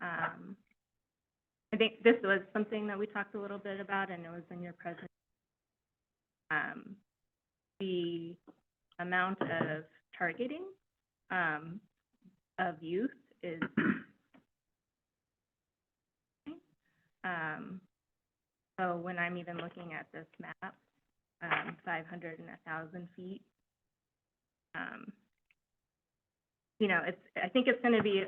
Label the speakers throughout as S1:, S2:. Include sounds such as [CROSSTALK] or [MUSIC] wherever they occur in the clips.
S1: um, I think this was something that we talked a little bit about, and it was in your present. Um, the amount of targeting, um, of youth is, um, so when I'm even looking at this map, um, five hundred and a thousand feet, um, you know, it's, I think it's gonna be,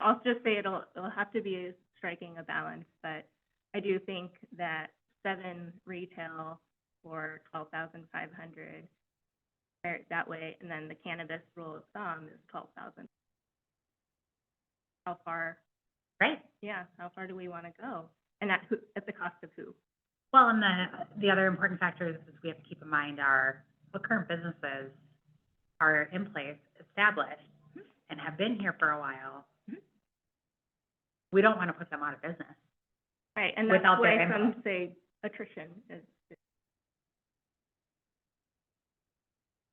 S1: I'll just say it'll, it'll have to be striking a balance, but I do think that seven retail for twelve thousand five hundred, there, that way, and then the cannabis rule of thumb is twelve thousand. How far,
S2: Right.
S1: yeah, how far do we wanna go? And at who, at the cost of who?
S2: Well, and the, the other important factors is we have to keep in mind are what current businesses are in place, established, and have been here for a while.
S1: Mhm.
S2: We don't want to put them out of business.
S1: Right, and that's
S2: Without
S1: why
S2: their
S1: some
S2: input.
S1: say attrition is,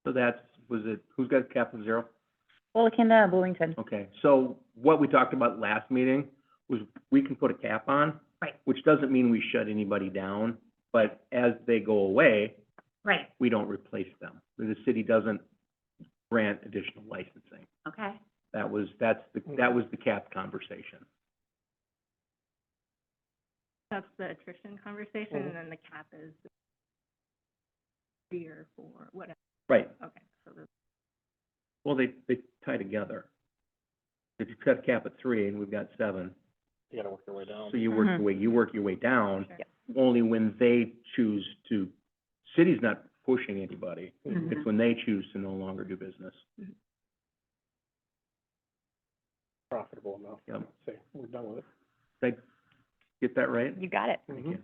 S3: So that's, was it, who's got cap of zero?
S4: Well, Canada, Bloomington.
S3: Okay, so what we talked about last meeting was we can put a cap on.
S2: Right.
S3: Which doesn't mean we shut anybody down, but as they go away,
S2: Right,
S3: we don't replace them. The city doesn't grant additional licensing.
S2: okay.
S3: That was, that's, the that was the cap conversation.
S1: that's the attrition conversation, and then the cap is three or four, whatever,
S3: Right.
S1: okay, so the
S3: Well, they, they tie together. If you cut a cap at three and we've got seven,
S5: You gotta work your way down.
S3: so you work your
S4: Mhm.
S3: way, you work your way down,
S1: Sure.
S4: Yep.
S3: only when they choose to, city's not pushing anybody.
S2: Mhm.
S3: It's when they choose to no longer do business.
S5: Profitable enough.
S3: Yep.
S5: Say, we're done with it. Mm-hmm.
S3: Get that right?
S4: You got it.
S3: Thank you.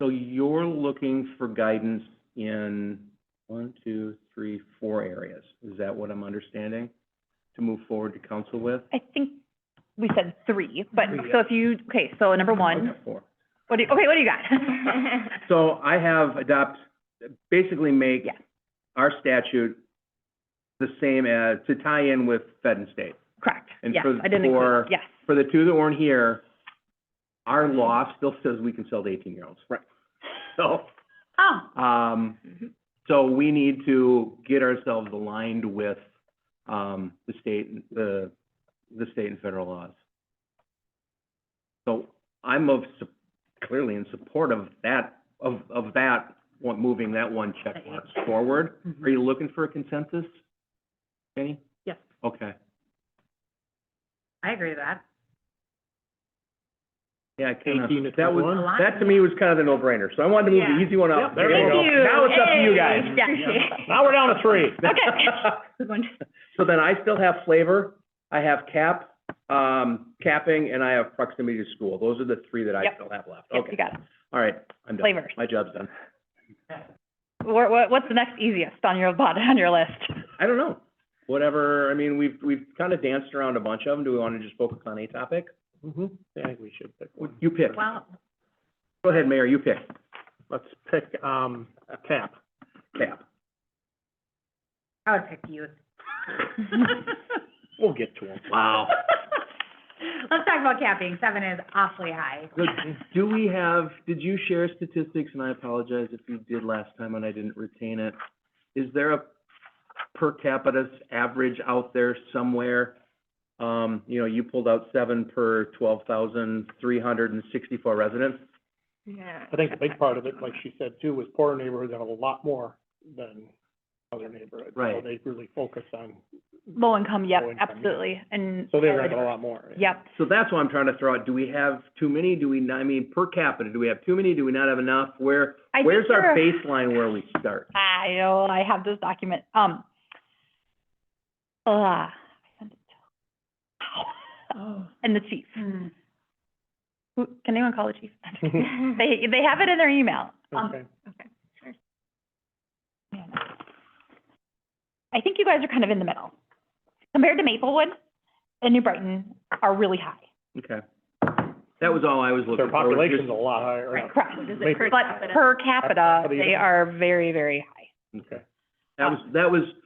S3: So you're looking for guidance in one, two, three, four areas. Is that what I'm understanding? To move forward to council with?
S4: I think we said three, but,
S3: Three,
S4: so if you, okay, so number one,
S3: Okay, Four.
S4: what do, you- okay, what do you got? [LAUGHS]
S3: So I have adopt, basically make
S4: Yeah.
S3: our statute the same as, to tie in with Fed and state.
S4: Correct,
S3: And
S4: yes,
S3: for-
S4: I didn't
S3: for-
S4: include, yes.
S3: For the two that weren't here, our law still says we can sell to eighteen-year-olds. Right. So,
S2: Oh,
S3: um,
S5: [LAUGHS]
S1: Mhm.
S3: so we need to get ourselves aligned with, um, the state, and- the, the state and federal laws. So I'm of, su- clearly in support of that, of, of that, one- moving that one check mark forward.
S2: Mm-hmm.
S3: Are you looking for a consensus, Jenny?
S2: Yes.
S3: Okay.
S2: I agree with that.
S3: Yeah, I kinda-
S5: 18 to
S3: that was,
S5: 21?
S3: that to me was kind of the no-brainer, so I wanted to move
S1: Yeah.
S3: the easy one
S5: Yep,
S3: up.
S5: there you go.
S3: Now it's up to
S4: [LAUGHS]
S3: you guys.
S4: Hey, yeah.
S5: Now we're down to three.
S3: [LAUGHS]
S1: one.
S3: So then I still have flavor, I have cap, um, capping, and I have proximity to school. Those are the three that I
S4: Yep.
S3: still have left.
S4: Yep, you
S3: Okay,
S4: got it.
S3: all right, I'm done.
S4: Flavors.
S3: My job's done.
S4: What, what, what's the next easiest on your, bot- on your list?
S3: I don't know. Whatever, I mean, we've, we've kind of danced around a bunch of them. Do we want to just focus on a topic?
S5: Mm-hmm. I think we should pick one.
S3: You pick.
S2: Well,
S3: Go ahead, Mayor, you pick.
S5: Let's pick, um, cap.
S3: Cap.
S2: I would pick
S4: [LAUGHS]
S2: youth.
S5: We'll get to them.
S3: Wow.
S2: [LAUGHS] Let's talk about capping. Seven is awfully high.
S3: So, do we have, did you share statistics, and I apologize if you did last time and I didn't retain it. Is there a per capita s- average out there somewhere? Um, you know, you pulled out seven per twelve thousand three hundred and sixty-four residents.
S1: Yeah.
S5: I think the big part of it,
S1: [LAUGHS]
S5: like she said too, was poorer neighborhoods have a lot more than other neighborhoods. So
S3: Right.
S5: they really focus on,
S4: Low income, yep,
S5: Low income, yeah.
S4: absolutely, and.
S5: so they're gonna have a lot more. [LAUGHS]
S4: Yep,
S3: So that's what I'm trying to throw out. Do we have too many? Do we, not- I mean, per capita, do we have too many? Do we not have enough? Where,
S4: I think
S3: where's our
S4: you're-
S3: baseline where we start?
S4: I know, I have this document, um, uh, I sent it to. And the chief,
S2: Oh. Hmm.
S4: who, can anyone call the chief? [LAUGHS]
S1: Um,
S5: [LAUGHS]
S4: They, they have it in their email. Um,
S5: Okay.
S4: man. I think you guys are kind of in the middle. Compared to Maplewood and New Brighton are really high,
S3: Okay. That was all I was looking
S5: Their
S3: for.
S5: population's a lot higher.
S1: Right.
S4: correct?
S1: What is it
S5: Maybe.
S1: per
S4: But
S1: capita?
S4: per capita,
S5: How do you-
S4: they are very, very high.
S3: Okay. That was, that was